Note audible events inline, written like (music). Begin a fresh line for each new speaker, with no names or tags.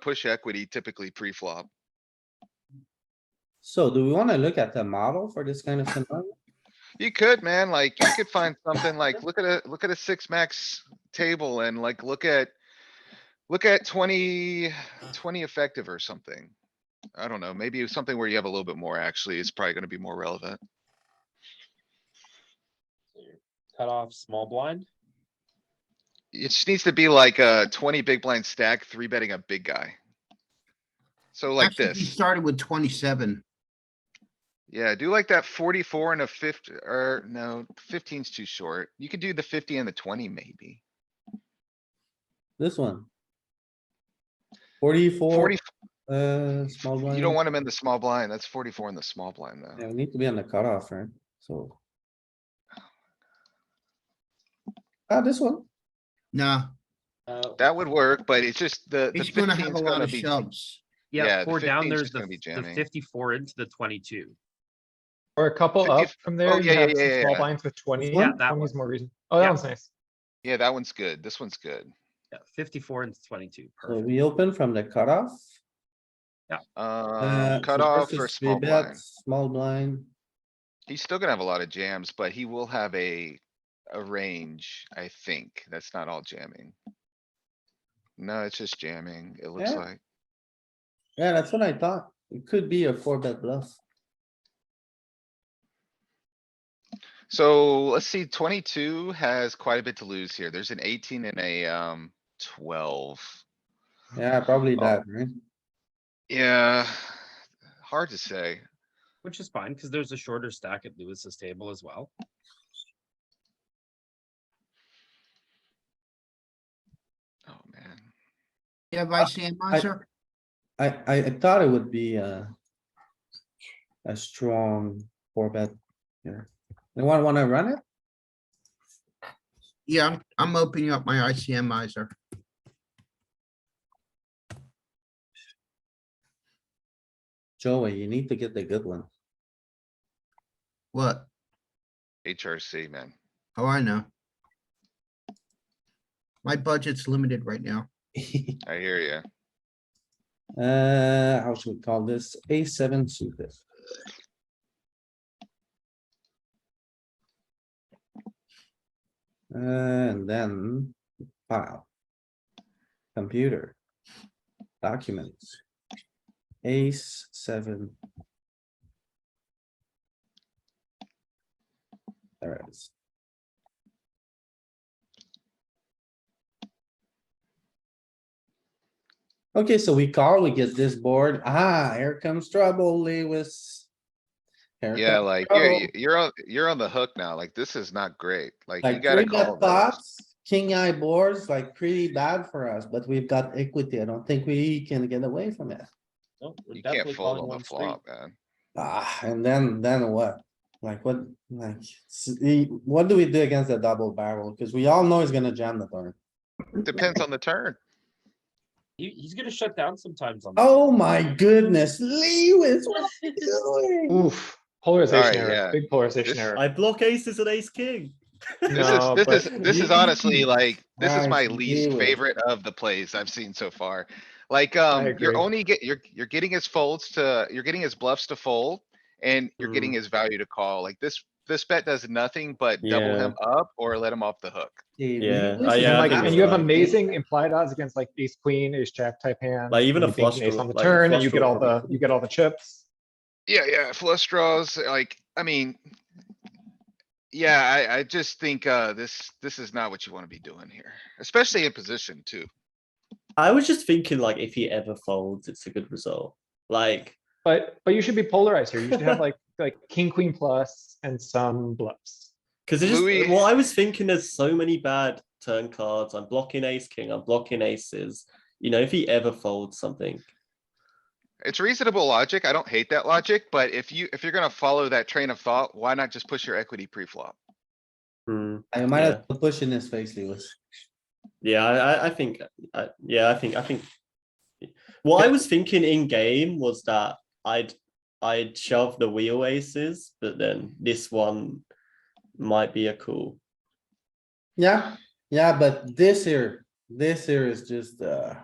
push equity typically pre-flop.
So do we wanna look at the model for this kind of scenario?
You could, man, like, you could find something like, look at a, look at a six max table and like, look at. Look at 20 20 effective or something. I don't know, maybe something where you have a little bit more actually is probably gonna be more relevant.
Cut off small blind.
It just needs to be like a twenty big blind stack, three betting a big guy. So like
Actually, he
this.
Started with twenty-seven.
Yeah, do like that forty-four and a fifty, or
Mm.
no, fifteen's too short. You could do the fifty and the twenty maybe.
This one. Forty-four,
Forty,
uh, small blind.
you don't want him in the small blind. That's forty-four in the small blind
Yeah,
though.
we need to be on the cutoff, right? So. Ah, this one.
Nah,
Uh,
That would work, but it's just the, the
he's gonna have a
fifteen's
lot
gonna
of
be,
shoves.
yeah,
yeah,
the
four down,
15 's
there's
just
the
gonna be
f- the
jamming.
fifty-four into the twenty-two.
Or a couple
Fifty- Oh,
up from there, you
yeah, yeah,
have
yeah,
some small
yeah.
blinds with twenty,
Yeah, that
twenty is
one.
more reason. Oh, that
Yeah.
one's nice.
yeah, that one's good. This one's good.
Yeah, fifty-four into twenty-two,
So
perfect.
we open from the cutoff.
Um
Uh,
cut
so
off
versus
or
three
small
bet,
blind.
Small blind.
He's still gonna have a lot of jams, but he will have a, a range, I think. That's not all jamming. No, it's just jamming, it looks
Yeah.
like.
Yeah, that's what I thought. It could be a four bet bluff.
So let's see, twenty-two has quite a bit to lose here. There's an eighteen and a, um, twelve.
Yeah, probably
Oh.
that, right?
Yeah, hard to say.
Which is fine, because there's a shorter stack at Lewis's table as well.
Oh, man.
Yeah, vice hand monster.
I, I, I thought it would be a. A strong four bet. Yeah. Anyone wanna run it?
Yeah, I'm- I'm opening up my ICM miser.
Joey, you need to get the good one. (laughs)
What?
HRC, man.
Oh, I know. My budget's limited right now.
I hear ya.
Uh, how should we call this? A seven suited. And then file. Computer. Documents. Ace seven. There it is. Okay, so we call, we get this board. Ah, here comes trouble, Lewis. Here
Yeah,
comes
like, you're,
trouble.
you're on, you're on the hook now. Like, this is not great. Like, you
Like
gotta
three
call.
bet
those.
pots, king eye boards, like pretty bad for us, but we've got equity. I don't think we can get away from it.
No, we're
You
definitely
can't
calling
fold on
one
the
street.
flop, man.
Ah, and then, then what? Like what, like, s- e- what do we do against the double barrel? Cause we all know he's gonna jam the turn.
Depends on the turn.
He, he's gonna shut down sometimes on. the turn.
Oh my goodness, Lewis, what are you doing?
Oof, polarization
yeah.
error, big polarization
This-
error.
I block aces and ace king.
This
No,
is,
but-
this
Uh,
is, this is honestly like, this is
I
my
see
least
what-
favorite of the plays I've seen so far. Like, um,
agree.
you're only get, you're, you're getting his folds to, you're getting his bluffs to fold. And you're getting
Mm.
his value to call. Like this, this bet does nothing but double
Yeah.
him up or let him off the hook.
Okay,
Yeah,
Lewis
I-
is
And
yeah, I
like,
think
absolutely-
and you have
right.
amazing implied odds against like ace queen, ace jack type hands.
Like, even
and you
a
think
flush
ace
draw-
On the
like, a
turn, and
flush
you get
draw
all the,
would be-
you get all the chips.
Yeah, yeah, flush draws, like, I mean. Yeah, I, I just think, uh, this, this is not what you wanna be doing here, especially in position too.
I was just thinking, like, if he ever folds, it's a good result. Like,
But, but you should be polarized here. You should
(laughs)
have like, like king, queen plus and some bluffs.
because it's just
Louis-
well, I was thinking there's so many bad turn cards. I'm blocking ace king. I'm blocking aces. You know, if he ever folds something,
It's reasonable logic. I don't hate that logic, but if you, if you're gonna follow that train of thought, why not just push your equity pre-flop?
hmm,
I might
Yeah.
have to push in his face, Lewis.
yeah, I, I, I think, I, yeah, I think, I think. What I was thinking in game was that I'd, I'd shove the wheel aces, but then this one might be a cool.
Yeah, yeah, but this here, this here is just, uh.